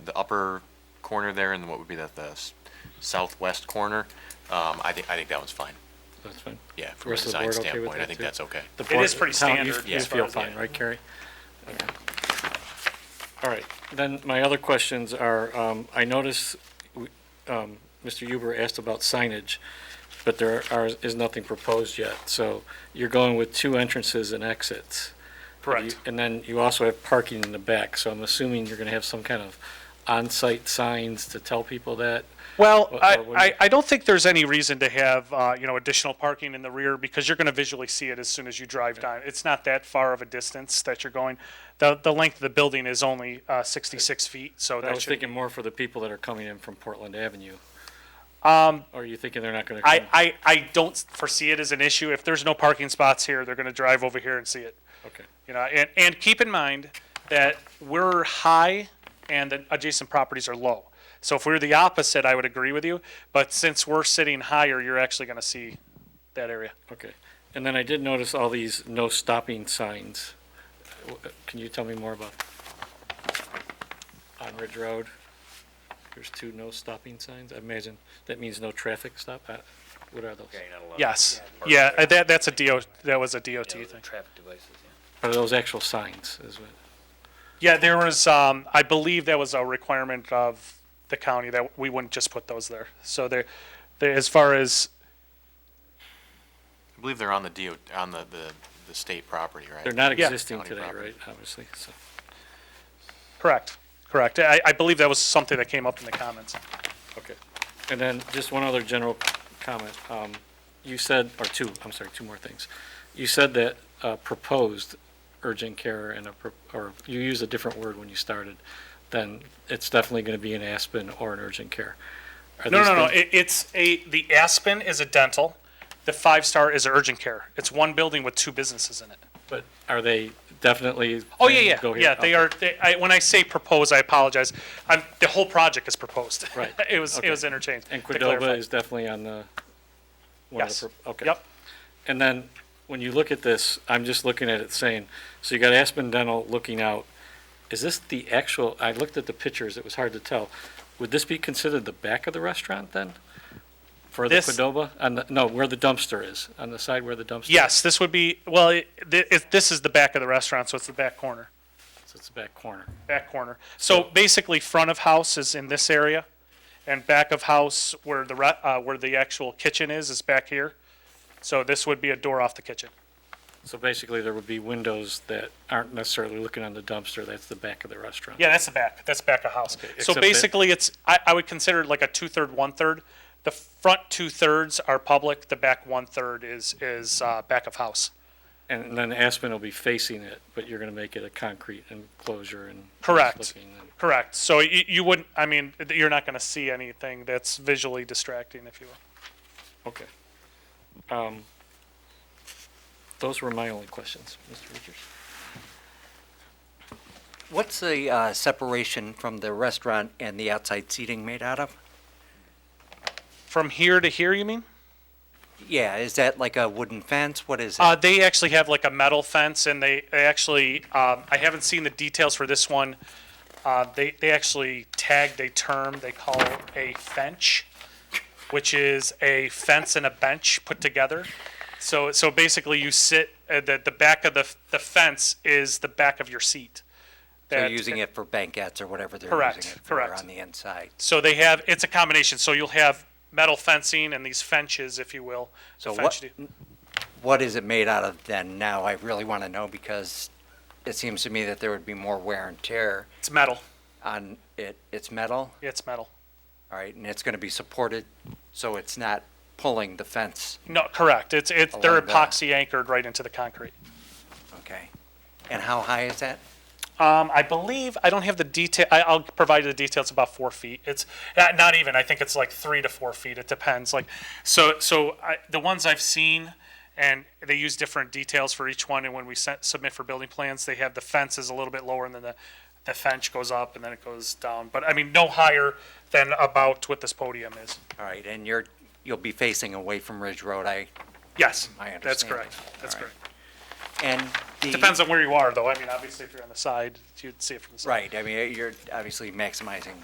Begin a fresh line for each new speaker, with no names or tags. upper corner there and what would be that, the s- southwest corner, um, I think, I think that one's fine.
That's fine.
Yeah, from a
Rest of the
design
board okay with
standpoint,
that
I think
too?
that's okay.
The
It is
board-
pretty
Tom, you-
standard
You
as far
feel
as I-
fine, right, Carrie? Okay. All right, then my other questions are, um, I notice, we- um, Mr. Huber asked about signage, but there are, is nothing proposed yet. So you're going with two entrances and exits.
Correct.
And then you also have parking in the back, so I'm assuming you're gonna have some kind of on-site signs to tell people that.
Well,
What-
I,
what- what do you-
I, I don't think there's any reason to have, uh, you know, additional parking in the rear because you're gonna visually see it as soon as you drive down. It's not that far of a distance that you're going. The, the length of the building is only, uh, sixty-six feet, so
I
that
was
should.
thinking more for the people that are coming in from Portland Avenue. Um. Or are you thinking they're not gonna come?
I, I, I don't foresee it as an issue. If there's no parking spots here, they're gonna drive over here and see it.
Okay.
You know, and, and keep in mind that we're high and the adjacent properties are low. So if we're the opposite, I would agree with you, but since we're sitting higher, you're actually gonna see that area.
Okay, and then I did notice all these no stopping signs. W- uh, Can you tell me more about? On Ridge Road, there's two no stopping signs, I imagine that means no traffic stop, Uh, what are those?
Yes, yeah, uh, that, that's a DO, that was a DOT
Yeah, the
thing.
Traffic devices, yeah.
Are those actual signs, is what,
Yeah, there was, um, I believe that was a requirement of the county that we wouldn't just put those there. So there, there, as far as,
I believe they're on the DO, on the, the, the state property, right?
they're not
Yeah.
existing
County
today,
property.
right, obviously, so.
correct, correct. I, I believe that was something that came up in the comments.
Okay. And then just one other general comment. Um, You said, or two, I'm sorry, two more things. You said that uh, proposed urgent care and a, pro- or you used a different word when you started, then it's definitely going to be an Aspen or an urgent care. Are
No,
these
no, no.
things-
It, it's a, the Aspen is a dental. The five star is urgent care. It's one building with two businesses in it.
But are they definitely?
Oh, yeah,
saying
yeah.
go here?
Yeah,
Okay.
they are, they, I, when I say propose, I apologize. I'm, the whole project is proposed.
Right.
It was, it
Okay.
was interchanged.
And
to clarify.
Cordova is definitely on the, one of
Yes.
the, pro- okay.
Yep.
And then, when you look at this, I'm just looking at it saying, so you got Aspen Dental looking out. Is this the actual, I looked at the pictures, it was hard to tell. Would this be considered the back of the restaurant then? For the
This-
Qdoba? On the, no, where the dumpster is, on the side where the dumpster? is?
Yes, this would be, well, it, thi- it, this is the back of the restaurant, so it's the back corner,
So It's the back corner.
back corner. So basically, front of house is in this area, and back of house where the, re- uh, where the actual kitchen is, is back here. So this would be a door off the kitchen.
So basically, there would be windows that aren't necessarily looking on the dumpster, that's the back of the restaurant.
Yeah, that's the back. That's back of house.
except
So
that-
basically, it's, I, I would consider it like a two-third, one-third. The front two-thirds are public, the back one-third is, is, uh, back of house.
And then Aspen will be facing it, but you're gonna make it a concrete enclosure and.
Correct.
looking and-
Correct. So you, you wouldn't, I mean, you're not gonna see anything that's visually distracting, if you will.
Okay. Um, Those were my only questions, Mr. Richards.
What's the uh, separation from the restaurant and the outside seating made out of?
From here to here, you mean?
Yeah, is that like a wooden fence? What is it?
Uh, they actually have like a metal fence, and they, they actually, um, I haven't seen the details for this one. Uh, they, they actually tagged a term they call a fench, which is a fence and a bench put together. So, so basically, you sit, uh, the, the back of the, the fence is the back of your seat.
They're
That-
using it for banquettes or whatever they're
Correct,
using it for
correct.
on the inside.
So they have, it's a combination. So you'll have metal fencing and these fences, if you will.
So
The
what-
fench-
What is it made out of then now? I really want to know because it seems to me that there would be more wear and tear
It's metal.
on it. It's metal,
It's metal.
all right, and it's going to be supported so it's not pulling the fence,
No, correct. It's, it's, they're
Along that.
epoxy anchored right into the concrete.
okay? And how high is that?
Um, I believe I don't have the detail. I, I'll provide you the details. About four feet. It's not, not even. I think it's like three to four feet. It depends. Like so. So I, the ones I've seen, and they use different details for each one. And when we sent, submit for building plans, they have the fence is a little bit lower, and then the the fence goes up, and then it goes down. But I mean, no higher than about what this podium is.
All right, and you're, you'll be facing away from Ridge Road, I,
Yes,
My
that's
understanding.
correct. That's
All right.
correct.
and the.
Depends on where you are, though. I mean, obviously, if you're on the side, you'd see it from the side.
Right, I mean, you're obviously maximizing